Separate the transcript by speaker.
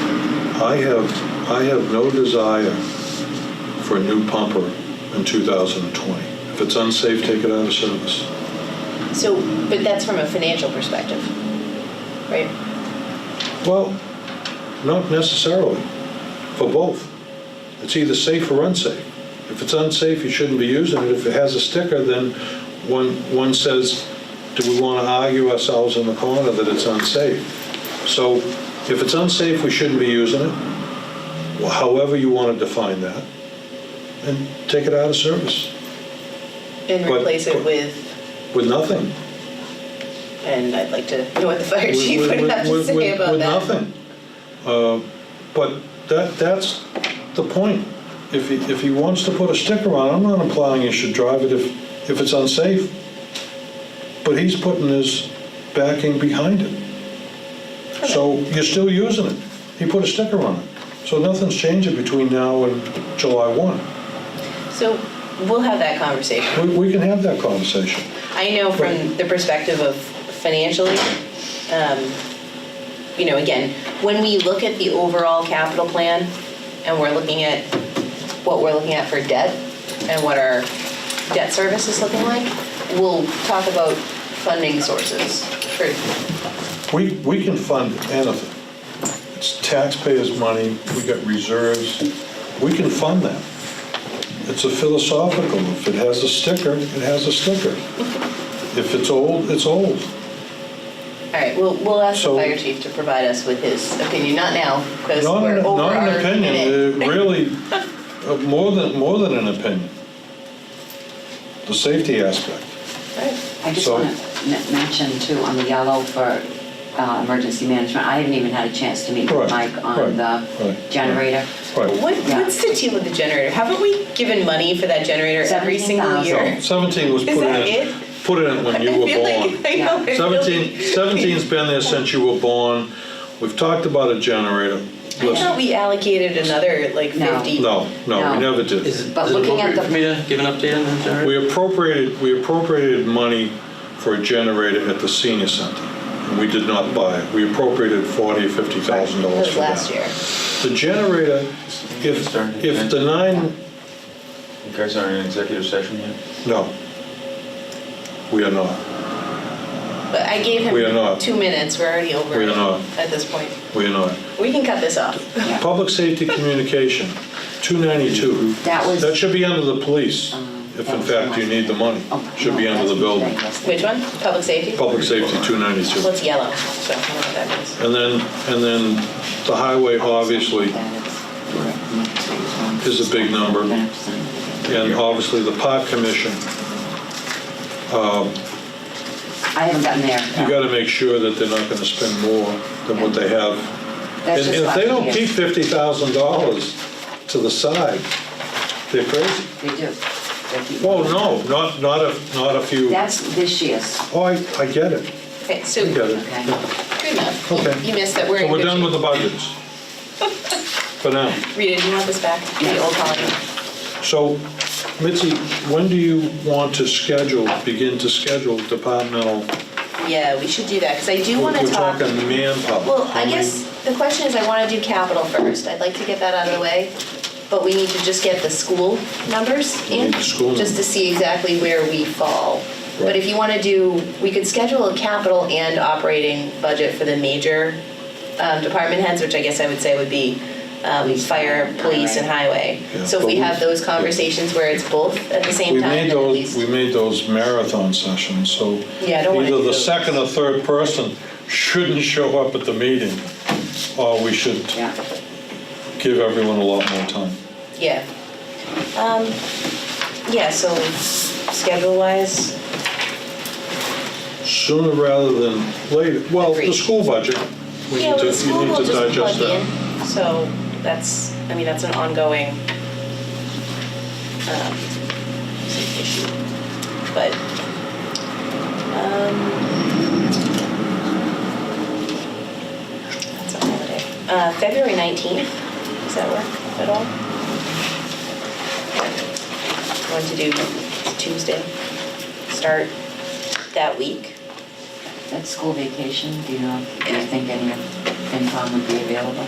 Speaker 1: I have, I have no desire for a new pumper in 2020. If it's unsafe, take it out of service.
Speaker 2: So, but that's from a financial perspective, right?
Speaker 1: Well, not necessarily, for both. It's either safe or unsafe. If it's unsafe, you shouldn't be using it. If it has a sticker, then one, one says, do we want to argue ourselves in the corner that it's unsafe? So if it's unsafe, we shouldn't be using it, Well, however you want to define that, and take it out of service
Speaker 2: And
Speaker 1: But-
Speaker 2: replace it
Speaker 1: but-
Speaker 2: with,
Speaker 1: with nothing.
Speaker 2: and I'd like to know what the fire
Speaker 1: with-
Speaker 2: chief would
Speaker 1: with-
Speaker 2: have to
Speaker 1: with-
Speaker 2: say
Speaker 1: with-
Speaker 2: about
Speaker 1: with
Speaker 2: that.
Speaker 1: nothing. Uh, But that, that's the point. If he, if he wants to put a sticker on, it, I'm not implying he should drive it if, if it's unsafe. But he's putting his backing behind it. So you're still using it. He put a sticker on it. So nothing's changing between now and July 1.
Speaker 2: So we'll have that conversation.
Speaker 1: We, we can have that conversation.
Speaker 2: I know from
Speaker 1: Right.
Speaker 2: the perspective of financially, um, you know, again, when we look at the overall capital plan and we're looking at what we're looking at for debt and what our debt service is looking like, we'll talk about funding sources for,
Speaker 1: We, we can fund anything. It's taxpayers' money, we got reserves, we can fund that. It's a philosophical, if it has a sticker, it has a sticker. If it's old, it's old.
Speaker 2: all right, we'll, we'll ask the
Speaker 1: So-
Speaker 2: fire chief to provide us with his opinion, not now, because
Speaker 1: Not
Speaker 2: we're
Speaker 1: an-
Speaker 2: over
Speaker 1: Not
Speaker 2: our
Speaker 1: an opinion,
Speaker 2: minute.
Speaker 1: uh, really, uh, more than, more than an opinion. The safety aspect. uh,
Speaker 2: All right.
Speaker 3: I just
Speaker 1: So-
Speaker 3: want to mention too, on the yellow for uh, emergency management, I haven't even had a chance to meet
Speaker 1: Right,
Speaker 3: with Mike
Speaker 1: right,
Speaker 3: on the
Speaker 1: right,
Speaker 3: generator.
Speaker 1: Right,
Speaker 2: What,
Speaker 3: Yeah.
Speaker 2: what's the deal with the generator? Haven't we given money for that generator every single
Speaker 3: 17,000.
Speaker 2: year?
Speaker 1: 17 was
Speaker 2: Is
Speaker 1: put in.
Speaker 2: that it?
Speaker 1: Put in when you
Speaker 2: I
Speaker 1: were
Speaker 2: feel like-
Speaker 1: born.
Speaker 2: I know, I feel
Speaker 1: 17,
Speaker 2: like-
Speaker 1: 17's been there since you were born. We've talked about a generator.
Speaker 2: I thought
Speaker 1: Listen,
Speaker 2: we allocated another like
Speaker 3: No.
Speaker 2: 50.
Speaker 1: no, no, we
Speaker 3: No.
Speaker 1: never
Speaker 4: Is
Speaker 1: did.
Speaker 4: it,
Speaker 3: But
Speaker 4: is it
Speaker 3: looking at
Speaker 4: appropriate for me to give an update on the generator?
Speaker 1: We appropriated, we appropriated money for a generator at the senior center. and We did not buy it. We appropriated 40, 50,000
Speaker 2: That
Speaker 1: dollars
Speaker 2: was
Speaker 1: for that.
Speaker 2: last year.
Speaker 1: The generator, if, if the nine,
Speaker 5: You guys aren't in executive session yet?
Speaker 1: no, we are not.
Speaker 2: But I gave him
Speaker 1: We are not.
Speaker 2: two minutes. We're already over
Speaker 1: We are not.
Speaker 2: at this point.
Speaker 1: We are not.
Speaker 2: We can cut this off.
Speaker 1: Public safety communication, 292.
Speaker 3: That was- Um,
Speaker 1: That should be under the police, if in fact you need the money.
Speaker 3: Oh,
Speaker 1: Should be
Speaker 3: no,
Speaker 1: under the
Speaker 3: that's
Speaker 1: building.
Speaker 3: today,
Speaker 2: Which one? Public safety?
Speaker 1: Public safety, 292.
Speaker 2: Well, it's yellow, so I don't know what that means.
Speaker 1: And then, and then the highway, obviously,
Speaker 3: That
Speaker 1: is a big number. and obviously the park commission.
Speaker 3: I haven't gotten there.
Speaker 1: You got to make sure that they're not going to spend more than what they have. And and
Speaker 3: That's just
Speaker 1: if they
Speaker 3: last
Speaker 1: don't
Speaker 3: year.
Speaker 1: keep $50,000 to the side, they're crazy.
Speaker 3: They do. They keep-
Speaker 1: Well, Oh, no, not, not if, not if you,
Speaker 3: That's this year's,
Speaker 1: oh, I, I get it.
Speaker 2: Okay, so
Speaker 1: I get
Speaker 2: good
Speaker 1: it.
Speaker 3: okay?
Speaker 2: enough.
Speaker 1: Okay.
Speaker 2: You missed that. We're
Speaker 1: So
Speaker 2: in
Speaker 1: we're
Speaker 2: good
Speaker 1: done
Speaker 2: shape.
Speaker 1: with the budgets. For now.
Speaker 2: Rita, do you want this back? The old colony.
Speaker 1: So Mitzi, when do you want to schedule, begin to schedule departmental?
Speaker 2: Yeah, we should do that because I do want to
Speaker 1: We're
Speaker 2: talk.
Speaker 1: talking manpower.
Speaker 2: Well,
Speaker 1: How
Speaker 2: I
Speaker 1: many-
Speaker 2: guess the question is, I want to do capital first. I'd like to get that out of the way, but we need to just get the school numbers
Speaker 1: We
Speaker 2: in,
Speaker 1: need the school
Speaker 2: just to
Speaker 1: numbers.
Speaker 2: see exactly where we fall. But
Speaker 1: Right.
Speaker 2: if you want to do, we could schedule a capital and operating budget for the major um, department heads, which I guess I would say would be um, fire, police, and highway.
Speaker 1: Yeah,
Speaker 2: So if we
Speaker 1: but
Speaker 2: have
Speaker 1: we-
Speaker 2: those conversations where it's both at the same
Speaker 1: We
Speaker 2: time,
Speaker 1: made
Speaker 2: then at
Speaker 1: those,
Speaker 2: least.
Speaker 1: we made those marathon sessions, so
Speaker 2: Yeah, I don't wanna
Speaker 1: either
Speaker 2: do
Speaker 1: the
Speaker 2: those.
Speaker 1: second or third person shouldn't show up at the meeting, or we should
Speaker 3: Yeah.
Speaker 1: give everyone a lot more time.
Speaker 2: Yeah. Um, yeah, so schedule wise,
Speaker 1: Sooner rather than later. Well, the
Speaker 2: Agreed.
Speaker 1: school budget, we
Speaker 2: yeah,
Speaker 1: need to,
Speaker 2: with
Speaker 1: you
Speaker 2: school
Speaker 1: need
Speaker 2: will
Speaker 1: to
Speaker 2: just plug
Speaker 1: digest
Speaker 2: in.
Speaker 1: that.
Speaker 2: So that's, I mean, that's an ongoing um, issue. But, um, that's a holiday. Uh, February 19th, does that work at all? Want to do Tuesday, start that week?
Speaker 3: That's school vacation, do you know, do you think any of FinCom would be available?